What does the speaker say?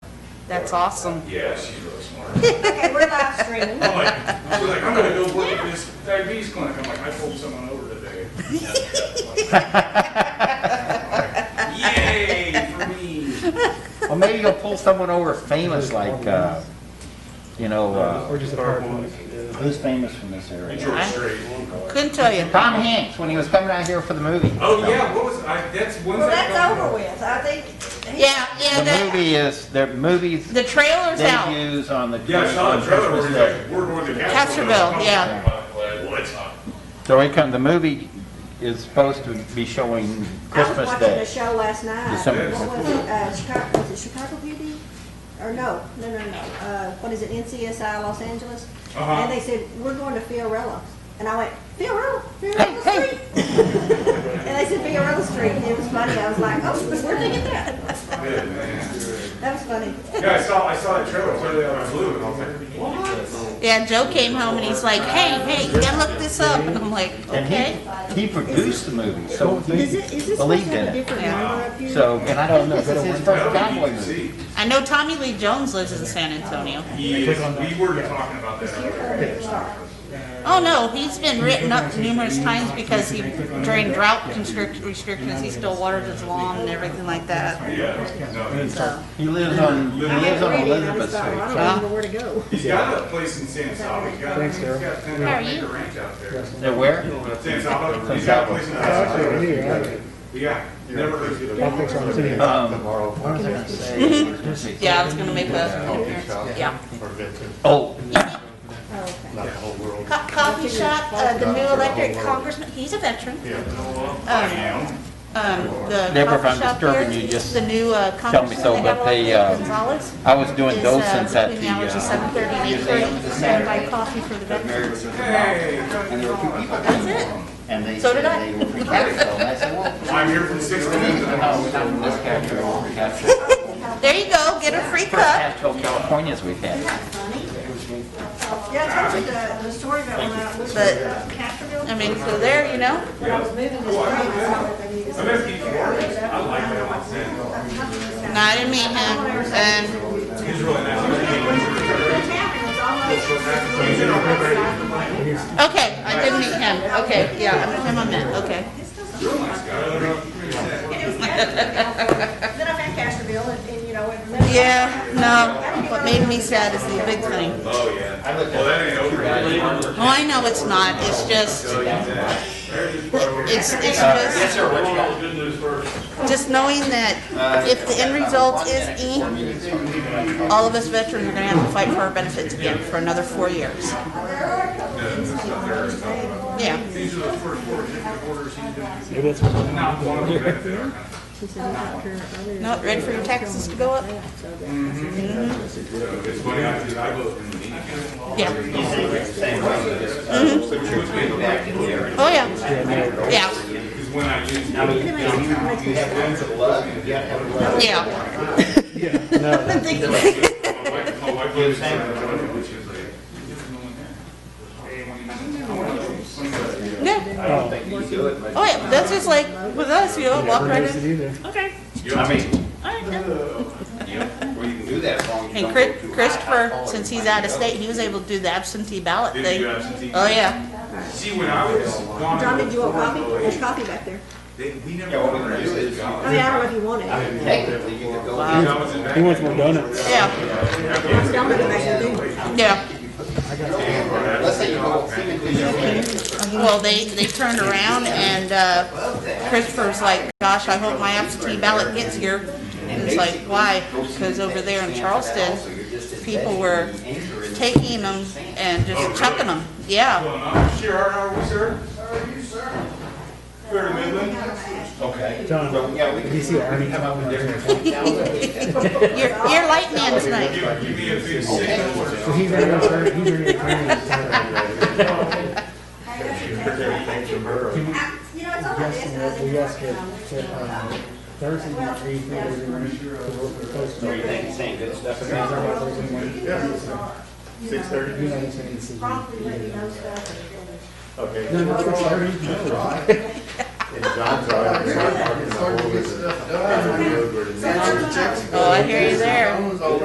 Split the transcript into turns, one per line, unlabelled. That's awesome.
Yeah, she's really smart.
Okay, we're live streaming.
I'm like, she's like, I'm gonna go work at this diabetes clinic. I'm like, I pulled someone over today. Yay for me.
Well, maybe you'll pull someone over famous like, uh, you know,
Or
uh,
just a park one.
who's famous from this
And
area?
George Strait.
Couldn't tell you.
Tom Hanks, when he was coming out here for the movie.
Oh, yeah, what was, I, that's, when's
Well,
that
that's
coming?
over with. I think.
Yeah, yeah,
The
the,
movie is, the movie's
the trailer's out.
debuts on the.
Yeah, I saw
on
the trailer,
Christmas
we're
Day.
like, we're going to
Castroville,
Castroville.
yeah.
What?
So it come, the movie is supposed to be showing Christmas
I was watching a
Day.
show last night.
December.
What was it? Uh, Chicago, was it Chicago Beauty? Or no, no, no, no. Uh, what is it? NCSI Los Angeles?
Uh-huh.
And they said, we're going to Fiorella. And I went, Fiorella? Fiorella Street? And they said Fiorella Street. And it was funny. I was like, oh, where'd they get that?
Good, man.
That was funny.
Yeah, I saw, I saw the trailer, clearly on blue, and I was like, what?
Yeah, Joe came home and he's like, hey, hey, you gotta look this up. And I'm like, okay.
And he, he produced the movie, so
Is
he
it, is this supposed
believed
to
in
have a
it.
different
Yeah.
number up here?
So, and I don't know, if this is his first
That would
cowboy
be
movie.
see.
I know Tommy Lee Jones lives in San Antonio.
He is- we were talking about that. earlier.
Oh, no, he's been written up numerous times because he, during drought constrict, restrictions, he still waters his lawn and everything like that,
Yeah, no, he's-
so.
He lives on, he
I
lives
had it
on
ready and I
Elizabeth
just
Street.
thought, well, I
so-
don't even know where to go.
he's got a place in San Saba, he's got, he's
Thanks, Sarah.
got ten
How are
acre
you?
ranch out there.
Now, where?
San Saba, he's got a place in San Saba. Yeah, never heard of
I think
it.
so, I'm sitting here.
Um, what was I gonna say?
Yeah, I was gonna make a appearance, yeah.
Oh,
Oh, okay.
Co- Coffee shop, uh, the new elected congressman, he's a veteran.
I am.
Um, the
Deborah, if
coffee
I'm
shop
disturbing
here,
you, just
the new uh,
tell me
congressman,
so,
they have
but they,
Lolita
uh,
Gonzalez.
I was doing
is, uh,
docents at the,
Between the hours of
uh,
seven thirty and eight
museum
thirty,
this
and
Saturday.
buy coffee for the veterans.
Hey,
And there were two people.
That's it.
And they
So
said
did I.
they were from Capitol. And I said, well,
I'm here from six to noon.
no, we're not from this Capitol, we're from Capitol.
There you go, get a free
First
cup.
Capitol, California's we've had.
Yeah, I told you the, the story about when I was
But-
with uh, Castroville.
I mean, so there, you know,
When I was moving this way, I saw that they needed
I'm
some.
at Keith Morris. I like that one. Sam.
not in Meehan, and
He's really nice. He's in our program.
Okay, I did meet him, okay, yeah, I'm with him on that, okay.
Real nice guy.
It was Castroville. Then I'm at Castroville and, and, you know, and.
Yeah, no, what made me sad is the big thing.
Oh, yeah. Well, that ain't over yet.
Oh, I know it's not, it's just, it's, it's just,
sir, what you got?
Good news first.
just knowing that if the end result is E, all of us veterans are gonna have to fight for our benefits again for another four years. Yeah.
These are the first four executive orders he's doing.
Maybe that's what-
Not one of them back there.
Not ready for your taxes to go up?
So It's funny, I did, I voted in the meeting.
Yeah, Mm-hmm.
So she was being elected here.
oh, yeah, yeah,
Because when I used. Now, you
yeah.
My wife, my wife lives in San Antonio, and she was like, "You don't know when that is."
Yeah. Oh, yeah, that's just like with us, you know, walk right in.
Either.
Okay,
I mean,
all right, yeah.
Well, you can do that as long as you
And
don't
Chris-
go too
Christopher, since he's out of state, he was able to do the absentee ballot
Did
thing.
you absentee?
Oh, yeah.
See, when I was gone.
John, did you want coffee? There's coffee back there.
They, we never.
Yeah, what we can do is-
I mean, I don't know if you want it. I
high. Technically, you could go
Wow.
I was in
He
back.
wants more donuts.
Yeah,
was down there back there.
yeah.
in, let's say you go physically, you can,
Well, they, they turned around and uh, Christopher's like, gosh, I hope my absentee ballot gets here. And it's like, why? Because over there in Charleston, people were taking them and just chucking them. Yeah.
Going on. Sure, how are we, sir? How are you, sir? We're in Midland.
okay.
John,
Yeah, we can.
if you see Arnie come up with different.
You're, you're light man tonight.
Give, give me a big signal or
So he's in retirement, he's in retirement.
You know, it's all like this. and I was
Yes,
in
we
the
asked
market,
him,
and I'm like,
um, Thursday, night, three, three, we're gonna make sure to work with those.
You think, saying good stuff
Guys,
about
I'm not losing money.
You know,
You know, it's gonna be easy.
promptly let me know stuff.
No, no, it's already- no.
Oh, I hear you there.